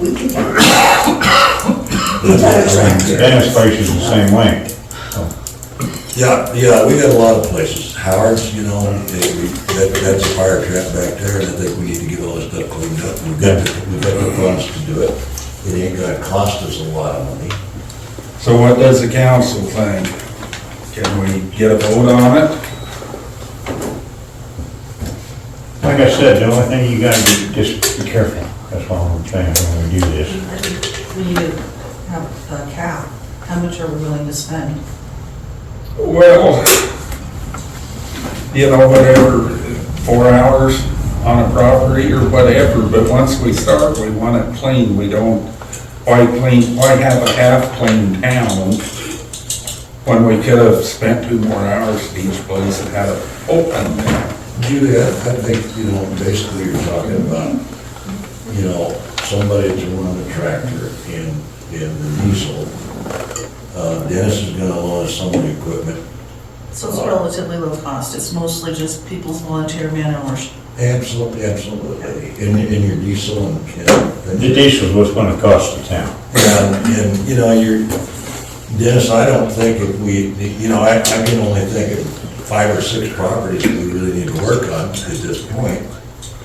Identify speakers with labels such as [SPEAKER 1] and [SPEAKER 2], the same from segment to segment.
[SPEAKER 1] we can take. The entire tract.
[SPEAKER 2] Dennis place is the same way.
[SPEAKER 3] Yeah, yeah, we got a lot of places, Howard's, you know, they- we- that, that's a fire trap back there, and I think we need to get all this stuff cleaned up, we've got, the- we've got the funds to do it. It ain't gonna cost us a lot of money.
[SPEAKER 4] So what does the council think? Can we get a vote on it?
[SPEAKER 2] Like I said, the only thing you gotta do, just be careful, that's all I'm saying when we do this.
[SPEAKER 5] We need to have a cap, how much are we willing to spend?
[SPEAKER 4] Well, you know, whatever, four hours on a property or whatever, but once we start, we want it clean. We don't, why clean, why have a half-clean town when we could have spent two more hours at each place and had it open?
[SPEAKER 3] Julia, I think, you know, basically you're talking about, you know, somebody that's running a tractor and, and the diesel. Uh, Dennis is gonna loan us some of the equipment,
[SPEAKER 5] So it's relatively low cost, it's mostly just people's volunteer man hours.
[SPEAKER 3] absolutely, absolutely, in, in your diesel and, and.
[SPEAKER 2] The diesel's what's gonna cost the town.
[SPEAKER 3] And, and, you know, you're, Dennis, I don't think if we, you know, I, I can only think of five or six properties that we really need to work on at this point.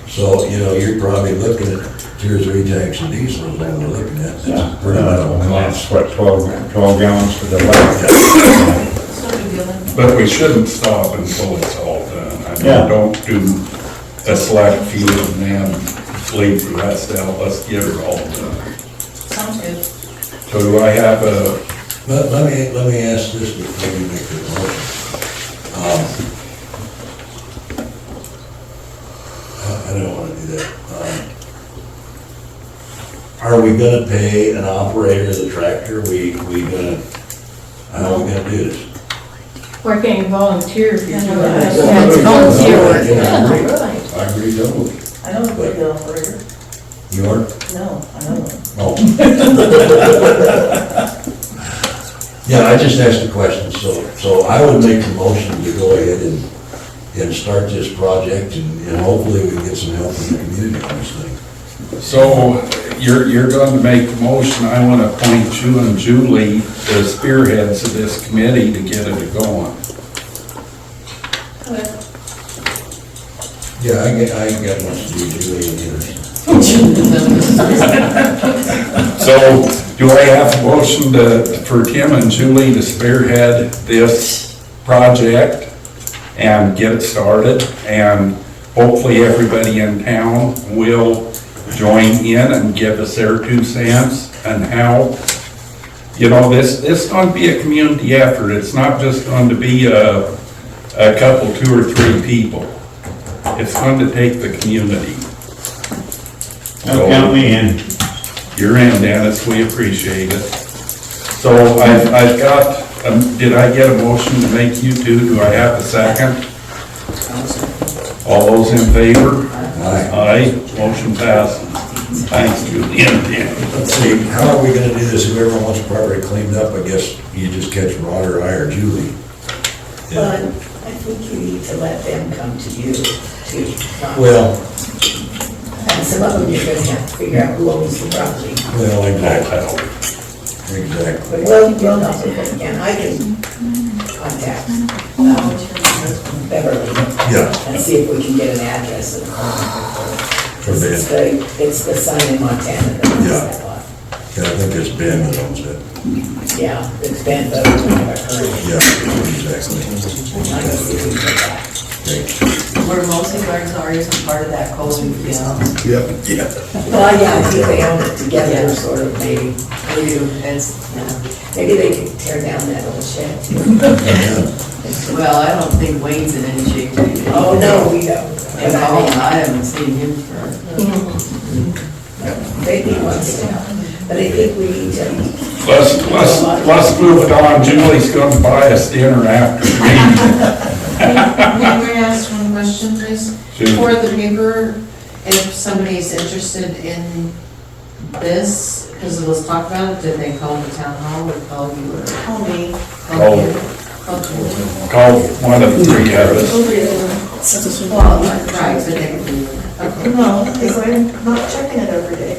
[SPEAKER 3] So, you know, you're probably looking at two or three tanks of diesel is what we're looking at. That's pretty much all
[SPEAKER 2] Uh, And
[SPEAKER 3] costs.
[SPEAKER 2] that's what, 12 12 gallons for the left.
[SPEAKER 5] It's no big deal then.
[SPEAKER 4] But we shouldn't stop until it's all done. I mean,
[SPEAKER 2] Yeah.
[SPEAKER 4] don't do a slack few and then leave the rest out. Let's get it all done.
[SPEAKER 5] Sounds good.
[SPEAKER 4] So do I have a,
[SPEAKER 3] Let, let me, let me ask this before you make your motion. Um, I- I don't wanna do that. Um, Are we gonna pay an operator of the tractor? We, we gonna, how are we gonna do this?
[SPEAKER 6] We're getting volunteers.
[SPEAKER 5] Yeah, no, I-
[SPEAKER 6] Yeah, it's volunteer work.
[SPEAKER 3] Yeah, I agree, double.
[SPEAKER 5] I don't agree with the operator,
[SPEAKER 3] You are?
[SPEAKER 5] no, I don't.
[SPEAKER 3] Oh. Yeah, I just asked a question, so, so I would make the motion to go ahead and, and start this project and and hopefully we can get some help from the community on this thing.
[SPEAKER 4] so you're, you're going to make the motion. I want to appoint you and Julie the spearheads of this committee to get it going.
[SPEAKER 3] Yeah, I get, I got much to do, Julie, and yours.
[SPEAKER 4] So do I have a motion to, for Tim and Julie to spearhead this project and get it started? And hopefully everybody in town will join in and give us their two cents and how, you know, this, this is going to be a community effort. It's not just going to be a, a couple, two or three people. It's going to take the community.
[SPEAKER 2] Don't count me in.
[SPEAKER 4] You're in, Dennis, we appreciate it. So I've, I've got, um, did I get a motion to make you two, do I have a second? All those in favor?
[SPEAKER 3] Aye.
[SPEAKER 4] Aye, motion passes. Thanks, Julie and Dan.
[SPEAKER 3] Let's see, how are we gonna do this? Whoever wants the property cleaned up, I guess you just catch Rod or I or Julie.
[SPEAKER 1] But
[SPEAKER 3] Yeah.
[SPEAKER 1] I think you need to let them come to you to,
[SPEAKER 3] Well,
[SPEAKER 1] and some of them you're gonna have to figure out who owns the property.
[SPEAKER 3] well, exactly,
[SPEAKER 4] Hotel.
[SPEAKER 3] exactly.
[SPEAKER 1] But well, you'll know, and I can contact um, Beverly
[SPEAKER 3] Yeah,
[SPEAKER 1] and see if we can get an address and a phone
[SPEAKER 3] for
[SPEAKER 1] number.
[SPEAKER 3] Ben,
[SPEAKER 1] It's the, it's the sign in Montana that owns that lot.
[SPEAKER 3] yeah, I think it's Ben that owns it.
[SPEAKER 1] Yeah, it's Ben Beverly, I've heard.
[SPEAKER 3] Yeah, exactly.
[SPEAKER 1] I can see if we can get that.
[SPEAKER 5] We're mostly garden areas and part of that code, you know,
[SPEAKER 3] Yep. Yeah.
[SPEAKER 1] Well, yeah, I think they own it together, sort of, maybe,
[SPEAKER 5] we do, it's,
[SPEAKER 1] maybe they could tear down that old shed.
[SPEAKER 5] well, I don't think Wayne's in any shape.
[SPEAKER 1] Oh, no, we don't.
[SPEAKER 5] At all, I haven't seen him for,
[SPEAKER 1] They need one still, but I think we need to,
[SPEAKER 4] Let's, let's, let's move it on, Julie's gonna buy us dinner after the
[SPEAKER 7] May may I ask one question, please?
[SPEAKER 4] meeting.
[SPEAKER 7] For the paper, if somebody's interested in this, because it was talked about, did they call the town hall or call you or? Call me.
[SPEAKER 4] Call.
[SPEAKER 7] Call you. Okay.
[SPEAKER 4] Call one of the three of us.
[SPEAKER 7] Well, right, but they, okay.
[SPEAKER 8] No, because I'm not checking it every day.